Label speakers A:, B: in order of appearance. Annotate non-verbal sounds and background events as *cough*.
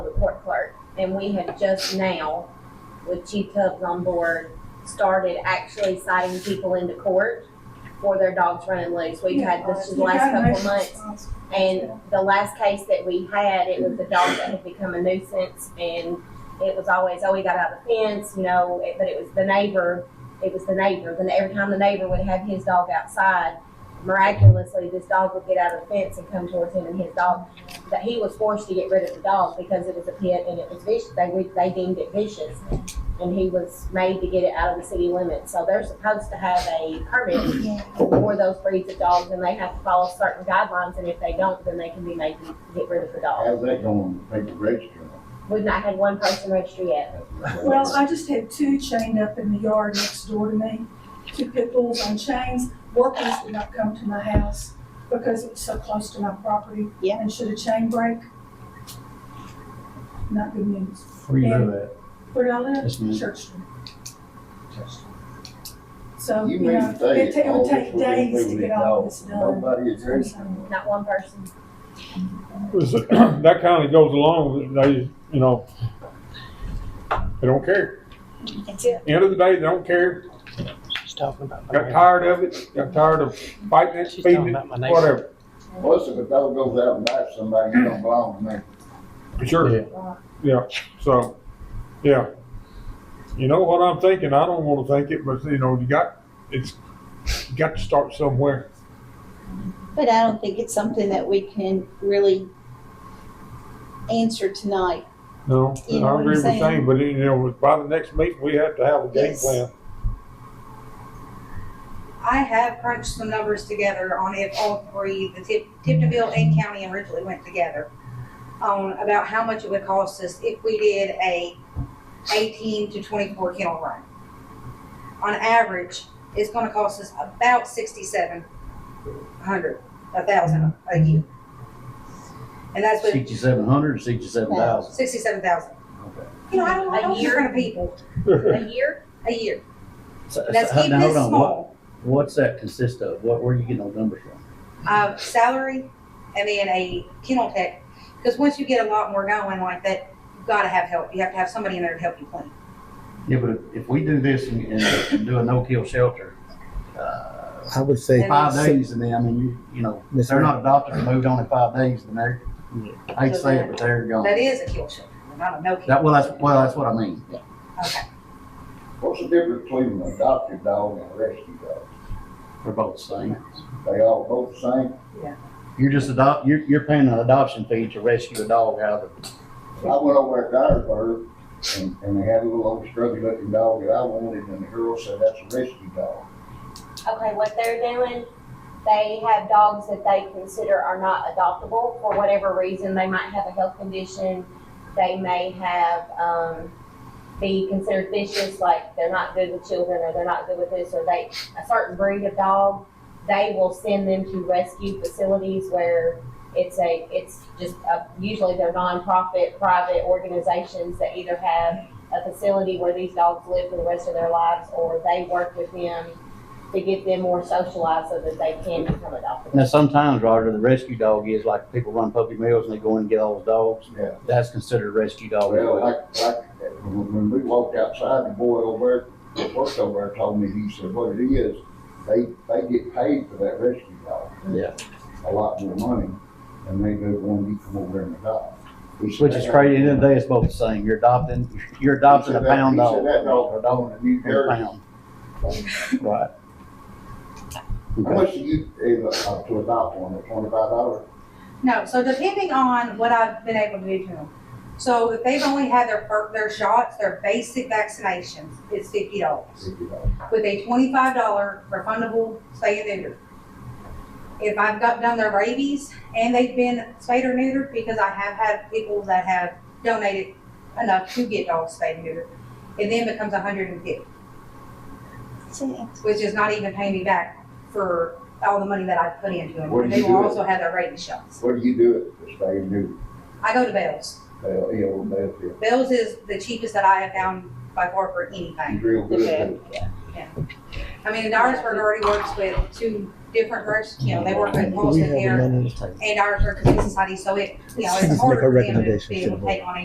A: And we have just now, with Chief Tubbs on board, started actually citing people into court for their dogs running loose. We've had this the last couple of months. And the last case that we had, it was a dog that had become a nuisance and it was always, oh, he got out of the fence, you know, it- but it was the neighbor, it was the neighbor. Then every time the neighbor would have his dog outside, miraculously, this dog would get out of the fence and come towards him and his dog. That he was forced to get rid of the dog because it was a pit and it was vicious, they, would- they deemed it vicious. And he was made to get it out of the city limits. So they're supposed to have a permit for those breeds of dogs, and they have to follow certain guidelines, and if they don't, then they can be made to get rid of the dog.
B: How's that going, people registering?
A: We've not had one person register yet.
C: Well, I just had two chained up in the yard next door to me, two pit bulls on chains. Workers would not come to my house because it was so close to my property.
A: Yeah.
C: And should a chain break? Not good news.
D: Where you
C: And-
D: live at?
C: Where do I live?
D: Yes, ma'am.
C: Church Street. So,
B: You
C: um, you
B: mean
C: know,
B: to say
C: it ta- it
B: all
C: would
B: this
C: take
B: would be
C: days to
B: included
C: get
B: in
C: all
B: all-
C: this done.
B: Nobody is registering.
A: Not one person.
E: Is it- *clears throat* That kind of goes along with, they, you know, they don't care.
F: That's it.
E: End of the day, they don't care.
G: She's talking about my
E: Got
G: neighbor.
E: tired of it, got tired of fighting it,
G: She's talking
E: feeding it,
G: about my neighbor.
E: whatever.
B: Plus, if a dog goes out and bites somebody, you don't belong to me.
E: Sure, yeah, so, yeah. You know what I'm thinking? I don't want to think it, but you know, you got, it's, you got to start somewhere.
F: But I don't think it's something that we can really answer tonight.
E: No,
F: You know
E: I
F: what I'm
E: agree with
F: saying?
E: Shane, but you know, by the next meeting, we have to have a game
F: Yes.
E: plan.
H: I have crunched some numbers together on if all three, the Tip, Tiptonville and county and Ridgely went together on about how much it would cost us if we did a eighteen to twenty-four kennel run. On average, it's gonna cost us about sixty-seven hundred, a thousand a year. And that's with
B: Sixty-seven hundred, sixty-seven thousand.
H: sixty-seven thousand.
B: Okay.
H: You know, I don't, I
A: A
H: don't think
A: year?
H: we're gonna people,
F: *laughs*
A: A year?
H: a year.
I: So- so,
H: Let's
I: hold-
H: keep
I: now,
H: this
I: hold on. What-
H: small.
I: What's that consist of? What, where are you getting those numbers from?
H: uh, salary and then a kennel tech. Because once you get a lot more going like that, you've got to have help. You have to have somebody in there to help you clean.
I: Yeah, but if- if we do this and, and- and do a no-kill shelter, uh,
G: I would say,
I: five days and then, I mean, you, you know, if they're not adopted or moved on in five days, then they're, I hate to say it, but they're gone.
H: That is a kill shelter, not a no kill.
I: That, well, that's, well, that's what I mean.
H: Okay.
B: What's the difference between an adopted dog and a rescue dog?
I: They're both the same.
B: They all both the same?
I: You're just adopt, you're, you're paying an adoption fee to rescue a dog out of,
B: I went over at Dyersburg and, and they had a little old scrubby looking dog that I wanted and the girl said, that's a rescue dog.
A: Okay, what they're doing, they have dogs that they consider are not adoptable for whatever reason. They might have a health condition, they may have, um, be considered vicious, like they're not good with children or they're not good with this, or they, a certain breed of dog, they will send them to rescue facilities where it's a, it's just, a- usually they're nonprofit, private organizations that either have a facility where these dogs live for the rest of their lives, or they work with them to get them more socialized so that they can become adopted.
I: now, sometimes, Roger, the rescue dog is like people run puppy mills and they go in and get all those dogs.
B: Yeah.
I: That's considered a rescue dog.
B: Well, like, like, when when we walked outside, the boy over there, that worked over there told me, he said, what it is, they, they get paid for that rescue dog.
I: Yeah.
B: A lot more money than they do when you come over there and adopt. He said
I: Which is
B: that-
I: crazy, at the end of the day, it's both the same, you're adopting, you're
B: he said
I: adopting a
B: that-
I: pound
B: He
I: dog.
B: said that dog, a dog in New
I: A
B: Jersey.
I: pound. Right.
B: How much do you, is, uh, to adopt one, at twenty-five dollars?
H: No, so depending on what I've been able to do to them. So if they've only had their, fir- their shots, their basic vaccinations, it's fifty dollars. with a twenty-five dollar refundable spay and neuter. If I've got done their rabies and they've been spayed or neutered, because I have had people that have donated enough to get dogs spayed and neutered, it then becomes a hundred and fifty,
F: That's it.
H: which is not even paying me back for all the money that I put into
B: What do you
H: them. They
B: do
H: will
B: it?
H: also have their rabies shots.
B: What do you do at the state new,
H: I go to Bell's.
B: uh, ill, that's it,
H: Bell's is the cheapest that I have found by far for anything.
B: he's real good at it.
H: I mean, Dyersburg already works with two different groups, you know, they work with Paulson here and Dyersburg Humane Society, so it, you know, it's harder for them to be able to take on a